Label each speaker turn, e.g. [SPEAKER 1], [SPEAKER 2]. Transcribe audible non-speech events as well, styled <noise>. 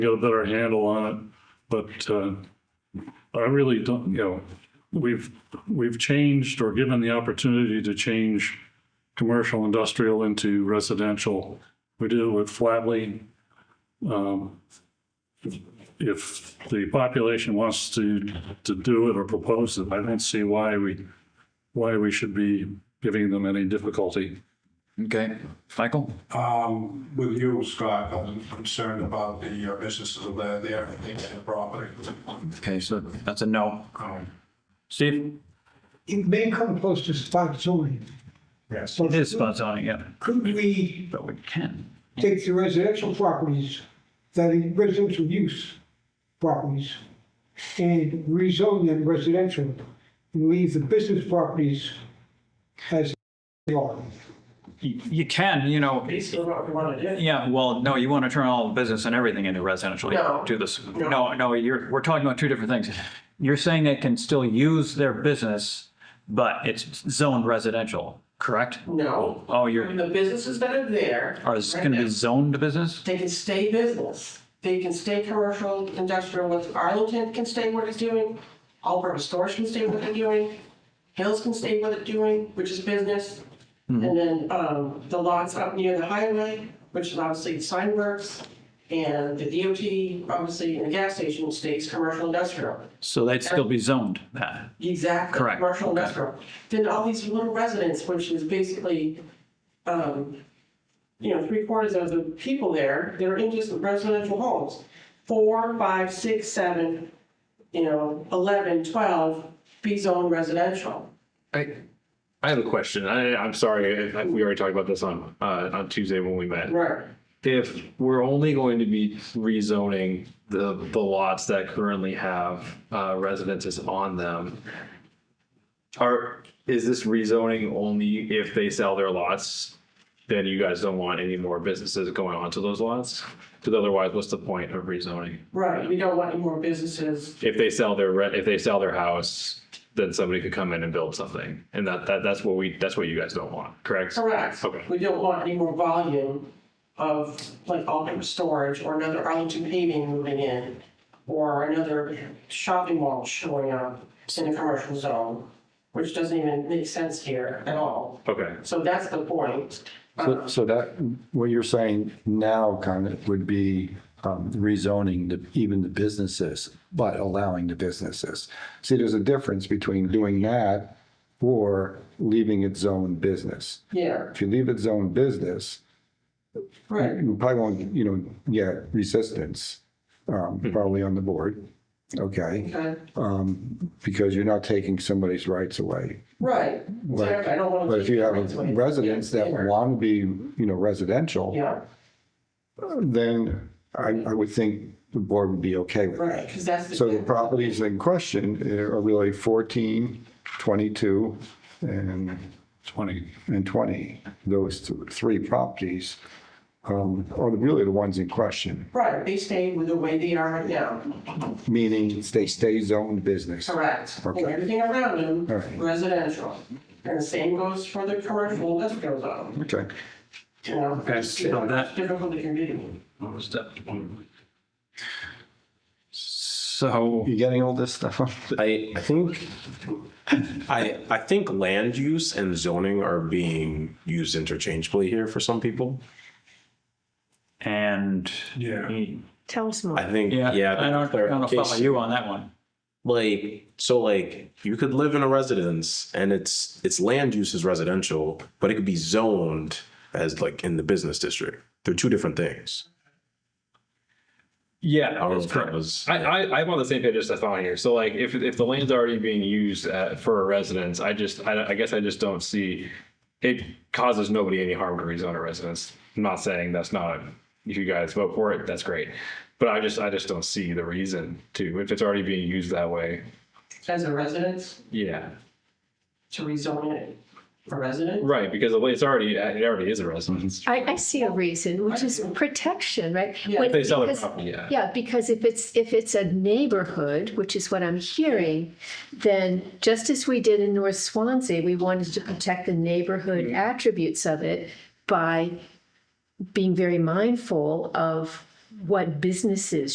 [SPEAKER 1] get a better handle on it. But uh, I really don't, you know, we've, we've changed or given the opportunity to change commercial industrial into residential. We did it with Flatley. Um, If the population wants to, to do it or propose it, I don't see why we, why we should be giving them any difficulty.
[SPEAKER 2] Okay, Michael?
[SPEAKER 3] Um, with you, Scott, I'm concerned about the uh, businesses that are there, I think, and the property.
[SPEAKER 2] Okay, so that's a no.
[SPEAKER 3] Um,
[SPEAKER 2] Steve?
[SPEAKER 4] It may come close to spot zoning.
[SPEAKER 3] Yes.
[SPEAKER 4] But
[SPEAKER 2] spot zoning, yeah.
[SPEAKER 4] Could we
[SPEAKER 2] But we can.
[SPEAKER 4] take the residential properties, that is residential use properties, and rezone them residential and leave the business properties as they are?
[SPEAKER 2] You can, you know,
[SPEAKER 5] Basically, what we want to do.
[SPEAKER 2] yeah, well, no, you want to turn all the business and everything into residential. You don't Do this. No, no, you're, we're talking about two different things. You're saying they can still use their business, but it's zoned residential, correct?
[SPEAKER 5] No.
[SPEAKER 2] Oh, you're-
[SPEAKER 5] I mean, The businesses that are there.
[SPEAKER 2] Or is it
[SPEAKER 5] right
[SPEAKER 2] going to
[SPEAKER 5] now,
[SPEAKER 2] be zoned business?
[SPEAKER 5] They can stay business. They can stay commercial, industrial, what Arlington can stay what it's doing. Albert Storage can stay what they're doing. Hills can stay what it's doing, which is business.
[SPEAKER 2] Mm-hmm.
[SPEAKER 5] And then, um, the lots up near the highway, which is obviously the sign works. And the DOT, obviously, and the gas station stays commercial, industrial.
[SPEAKER 2] So they'd still be zoned that.
[SPEAKER 5] Exactly.
[SPEAKER 2] Correct.
[SPEAKER 5] Commercial
[SPEAKER 2] Okay.
[SPEAKER 5] industrial. Then all these little residents, which is basically, um, you know, three quarters of the people there, they're in just residential homes. Four, five, six, seven, you know, eleven, twelve, B zone residential.
[SPEAKER 6] I, I have a question. I, I'm sorry if if we already talked about this on uh, on Tuesday when we met.
[SPEAKER 5] Right.
[SPEAKER 6] If we're only going to be rezoning the the lots that currently have uh, residences on them, are is this rezoning only if they sell their lots? Then you guys don't want any more businesses going onto those lots, because otherwise, what's the point of rezoning?
[SPEAKER 5] Right. We don't want any more businesses.
[SPEAKER 6] if they sell their rent, if they sell their house, then somebody could come in and build something. And that, that, that's what we, that's what you guys don't want, correct?
[SPEAKER 5] Correct.
[SPEAKER 6] Okay.
[SPEAKER 5] We don't want any more volume of like Alton Storage or another Arlington paving moving in or another shopping mall showing up in a commercial zone, which doesn't even make sense here at all.
[SPEAKER 6] Okay.
[SPEAKER 5] So that's the point.
[SPEAKER 7] So, so that, what you're saying now kind of would be um, rezoning the, even the businesses, but allowing the businesses. See, there's a difference between doing that or leaving it zone business.
[SPEAKER 5] Yeah,
[SPEAKER 7] If you leave it zone business,
[SPEAKER 5] right.
[SPEAKER 7] you probably won't, you know, get resistance, um, probably on the board, okay?
[SPEAKER 5] Okay.
[SPEAKER 7] Um, Because you're not taking somebody's rights away.
[SPEAKER 5] Right.
[SPEAKER 7] But-
[SPEAKER 5] I don't want to.
[SPEAKER 7] But if you have residents that want to be, you know, residential,
[SPEAKER 5] Yeah,
[SPEAKER 7] then I, I would think the board would be okay with
[SPEAKER 5] right,
[SPEAKER 7] that.
[SPEAKER 5] because that's.
[SPEAKER 7] So the properties in question eh, are really 14, 22, and,
[SPEAKER 1] Twenty.
[SPEAKER 7] and 20. Those th- three properties um, are really the ones in question,
[SPEAKER 5] Right, they stay with the way they are right now.
[SPEAKER 7] meaning they stay zoned business.
[SPEAKER 5] Correct. And
[SPEAKER 7] Okay.
[SPEAKER 5] everything around them,
[SPEAKER 7] All right.
[SPEAKER 5] residential. And the same goes for the commercial that goes on,
[SPEAKER 7] Okay.
[SPEAKER 5] you know?
[SPEAKER 2] Okay, so that-
[SPEAKER 5] Difficult to convene.
[SPEAKER 2] So.
[SPEAKER 7] You getting all this stuff? <laughs>
[SPEAKER 8] I, I think, I, I think land use and zoning are being used interchangeably here for some people.
[SPEAKER 2] And.
[SPEAKER 3] Yeah.
[SPEAKER 9] Tell us more.
[SPEAKER 8] I think, yeah.
[SPEAKER 2] Yeah, I don't, I don't follow
[SPEAKER 8] clarification.
[SPEAKER 2] you on that one.
[SPEAKER 8] Like, so like, you could live in a residence and it's, it's land use is residential, but it could be zoned as like in the business district. They're two different things.
[SPEAKER 6] Yeah,
[SPEAKER 8] I don't know
[SPEAKER 6] that's
[SPEAKER 8] if that
[SPEAKER 6] correct.
[SPEAKER 8] was-
[SPEAKER 6] I, I, I'm on the same page as Stefan here. So like, if, if the land's already being used uh, for a residence, I just, I, I guess I just don't see, it causes nobody any harm to rezone a residence. I'm not saying that's not, if you guys vote for it, that's great. But I just, I just don't see the reason to, if it's already being used that way.
[SPEAKER 5] As a residence,
[SPEAKER 6] Yeah.
[SPEAKER 5] to rezone it for resident?
[SPEAKER 6] Right, because the way it's already, it already is a residence.
[SPEAKER 9] I, I see a reason, which is protection, right?
[SPEAKER 5] Yeah.
[SPEAKER 9] When-
[SPEAKER 6] If they sell their
[SPEAKER 9] because-
[SPEAKER 6] property, yeah.
[SPEAKER 9] Yeah, because if it's, if it's a neighborhood, which is what I'm hearing, then just as we did in North Swansea, we wanted to protect the neighborhood attributes of it by being very mindful of what businesses